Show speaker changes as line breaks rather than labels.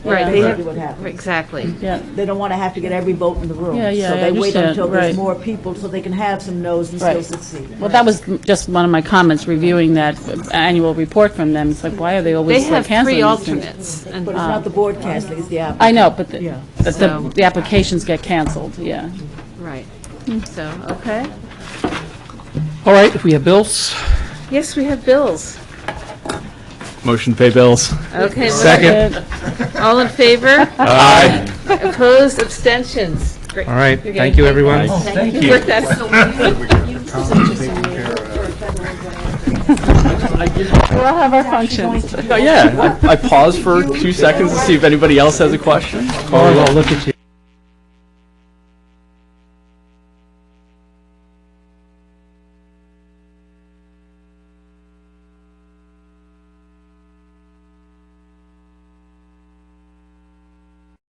Right,
That's
they
usually
have-
what happens.
Exactly.
Yeah,
They don't want to have to get every vote in the room.
Yeah, yeah, I
So they wait
understand,
until there's
right.
more people so they can have some no's and still
Right.
succeed.
well, that was m- just one of my comments, reviewing that annual report from them, it's like, why are they
They
always like,
have
canceling
three
these things?
alternates,
But it's
Uh,
and
not the board casting, it's the applicant.
I know, but the,
Yeah.
but
So-
the the applications get canceled, yeah.
right. So, okay.
All right, if we have bills,
Yes, we have bills.
Motion to pay bills.
Okay. well,
Second.
All in favor?
Aye.
Opposed? Abstentions? Great.
All right,
You're
thank
getting-
you, everyone.
Thank you.
We'll have our functions.
Oh,
Yeah, I I paused for two seconds to see if anybody else has a question.
Carl, I'll look at you.